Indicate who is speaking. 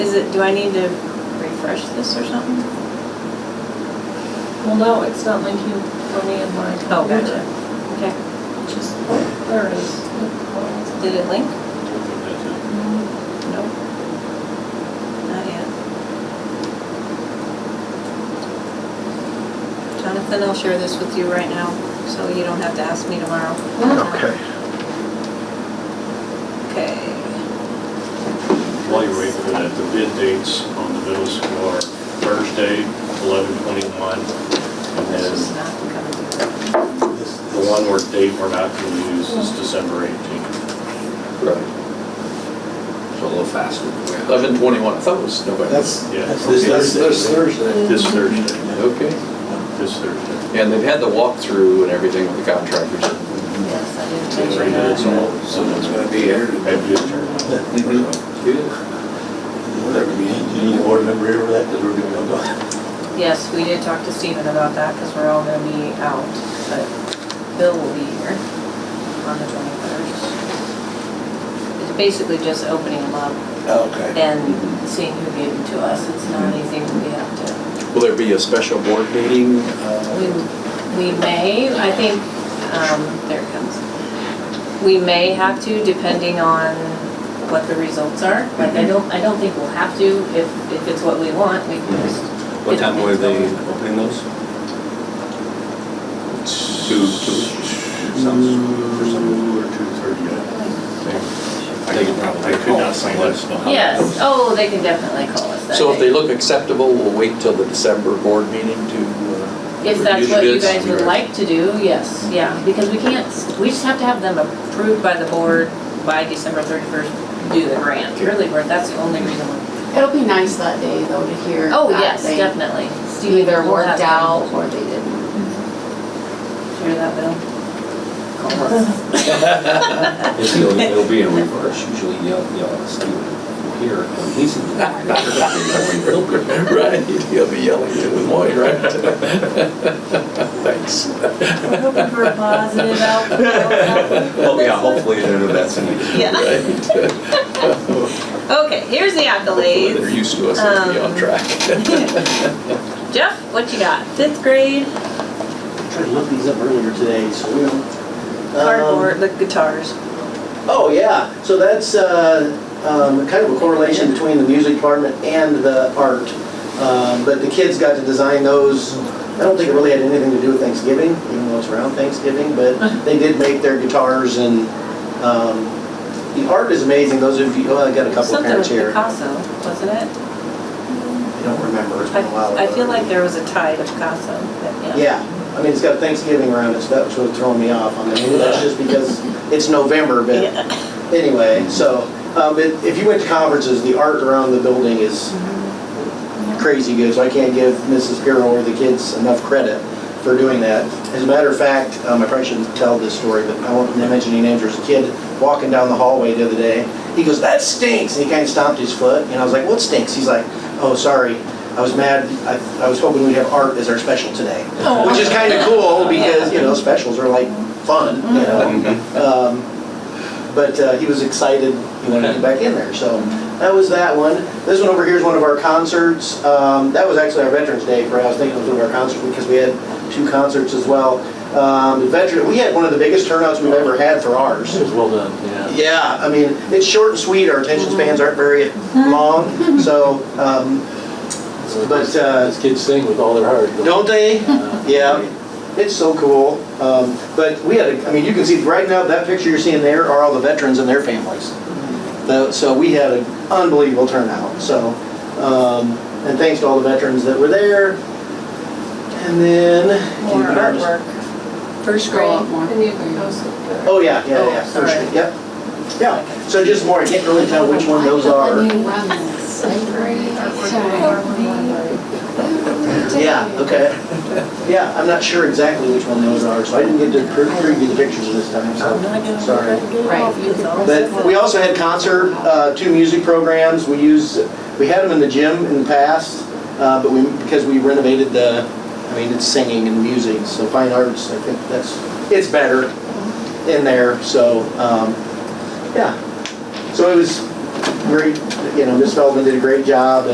Speaker 1: Is it, do I need to refresh this or something?
Speaker 2: Well, no, it's not linking for me and mine.
Speaker 1: Oh, gotcha. Okay.
Speaker 2: Just, there it is.
Speaker 1: Did it link?
Speaker 3: That's
Speaker 1: Nope. Not yet. Jonathan, I'll share this with you right now, so you don't have to ask me tomorrow.
Speaker 4: Okay.
Speaker 1: Okay.
Speaker 3: it. While you're waiting for that, the bid dates on the middle school are Thursday, eleven twenty-one, and
Speaker 1: This
Speaker 3: then
Speaker 1: is not coming through.
Speaker 3: the one where date we're not going to use is December eighteenth.
Speaker 5: Right.
Speaker 6: So a little faster.
Speaker 5: Eleven twenty-one, I thought it was November.
Speaker 4: That's,
Speaker 3: Yeah.
Speaker 4: that's this
Speaker 5: That's- that's
Speaker 4: Thursday.
Speaker 5: Thursday.
Speaker 3: This Thursday,
Speaker 5: Okay.
Speaker 3: this Thursday.
Speaker 5: And they've had the walkthrough and everything with the contractors.
Speaker 1: Yes, I did.
Speaker 3: It's right now, it's all, so
Speaker 6: Someone's
Speaker 3: that's
Speaker 6: gonna be here.
Speaker 3: Have you adjourned?
Speaker 4: Mm-hmm.
Speaker 5: Good.
Speaker 6: Whatever you need.
Speaker 4: You need a board member here for that, because we're gonna go down.
Speaker 1: Yes, we did talk to Stephen about that, because we're all gonna be out, but Bill will be here on the twenty-first. It's basically just opening them up
Speaker 6: Oh, Okay.
Speaker 1: and seeing who gave them to us, it's not
Speaker 6: Mm-hmm.
Speaker 1: anything we have to
Speaker 5: Will there be a special board meeting? uh,
Speaker 1: We, we may, I think, um, there it comes. We may have to depending on what the results are. Like,
Speaker 6: Mm-hmm.
Speaker 1: I don't, I don't think we'll have to if, if it's what we want, we can just.
Speaker 6: What time were they opening those? Two, two. Sounds, for some,
Speaker 3: Two or two
Speaker 6: I could
Speaker 3: thirty.
Speaker 6: probably
Speaker 3: I could not sign this.
Speaker 1: Yes, oh, they can definitely call us that
Speaker 5: So if they
Speaker 1: day.
Speaker 5: look acceptable, we'll wait till the December board meeting to. uh,
Speaker 1: If that's
Speaker 5: review
Speaker 1: what
Speaker 5: the
Speaker 1: you
Speaker 5: bids.
Speaker 1: guys would like to do, yes, yeah, because we can't, we just have to have them approved by the board by December thirty-first, do the grant, really, we're- that's the only reason. we're-
Speaker 7: It'll be nice that day though to hear.
Speaker 1: Oh,
Speaker 7: that
Speaker 1: yes,
Speaker 7: they
Speaker 1: definitely.
Speaker 7: Either
Speaker 1: We'll have
Speaker 7: worked
Speaker 1: to-
Speaker 7: out or they didn't.
Speaker 1: Hear that, Bill? Call us.
Speaker 6: it'll, it'll be in reverse, usually yell, yell at Steve here, and he's in the.
Speaker 5: Right, he'll be yelling at Des Moines, right? Thanks.
Speaker 1: We're hoping for a positive outcome.
Speaker 6: Well, yeah, hopefully they're the best.
Speaker 1: Yeah,
Speaker 5: Right.
Speaker 1: okay, here's the
Speaker 5: Hopefully They're
Speaker 1: accolades.
Speaker 5: used to us, they'll be on
Speaker 1: Um,
Speaker 5: track.
Speaker 1: Jeff, what you got? Fifth grade
Speaker 8: Tried to look these up earlier today, so we don't. Um,
Speaker 1: cardboard, the guitars.
Speaker 8: Oh, yeah, so that's uh, um, kind of a correlation between the music department and the art. Um, But the kids got to design those, I don't think it really had anything to do with Thanksgiving, even though it's around Thanksgiving, but
Speaker 1: Uh-huh.
Speaker 8: they did make their guitars and um, the art is amazing, those of you, well, I got a couple of
Speaker 1: Something with
Speaker 8: parents here.
Speaker 1: Picasso, wasn't it?
Speaker 8: I don't remember, it's been a while
Speaker 1: I I feel
Speaker 8: ago.
Speaker 1: like there was a tide of Picasso, but yeah.
Speaker 8: Yeah, I mean, it's got Thanksgiving around it, so that was what's throwing me off. I mean, that's just because it's November, but anyway, so, um, it- if you went to conferences, the art around the building is crazy good, so I can't give Mrs. Pirro or the kids enough credit for doing that. As a matter of fact, um, I probably shouldn't tell this story, but I won't mention any names, there was a kid walking down the hallway the other day, he goes, "That stinks," and he kind of stomped his foot, and I was like, "What stinks?" He's like, "Oh, sorry, I was mad, I, I was hoping we'd have art as our special today."
Speaker 1: Oh.
Speaker 8: Which is kind of cool, because, you know, specials are like fun, you
Speaker 5: Mm-hmm.
Speaker 8: know? Um, But uh, he was excited, he wanted to get back in there, so that was that one. This one over here is one of our concerts. Um, That was actually our Veterans Day, right? I was thinking it was one of our concerts because we had two concerts as well. Um, Veteran, we had one of the biggest turnouts we've ever had for ours.
Speaker 4: It was well done, yeah.
Speaker 8: Yeah, I mean, it's short and sweet, our attention spans aren't very long, so, um, but, uh,
Speaker 4: Those kids sing with all their heart.
Speaker 8: don't they?
Speaker 4: Uh,
Speaker 8: Yeah, it's so cool. Um, But we had, a- I mean, you can see right now, that picture you're seeing there are all the veterans and their families. The- So we had an unbelievable turnout, so, um, and thanks to all the veterans that were there. And then.
Speaker 1: More artwork.
Speaker 7: First grade.
Speaker 2: And you can post it there.
Speaker 8: Oh, yeah, yeah, yeah,
Speaker 1: Oh,
Speaker 8: first,
Speaker 1: sorry.
Speaker 8: yep. Yeah, so just more, I can't really tell which one those are.
Speaker 7: When you run this every time. Every
Speaker 8: Yeah,
Speaker 7: day.
Speaker 8: okay. Yeah, I'm not sure exactly which one those are, so I didn't get to pre- preview the pictures this time, so, sorry.
Speaker 7: Right, you could press it.
Speaker 8: But we also had concert, uh, two music programs, we use, we had them in the gym in the past, uh, but we, because we renovated the, I mean, it's singing and music, so fine arts, I think that's, it's better in there, so, um, yeah. So it was great, you know, Ms. Feldman did a great job,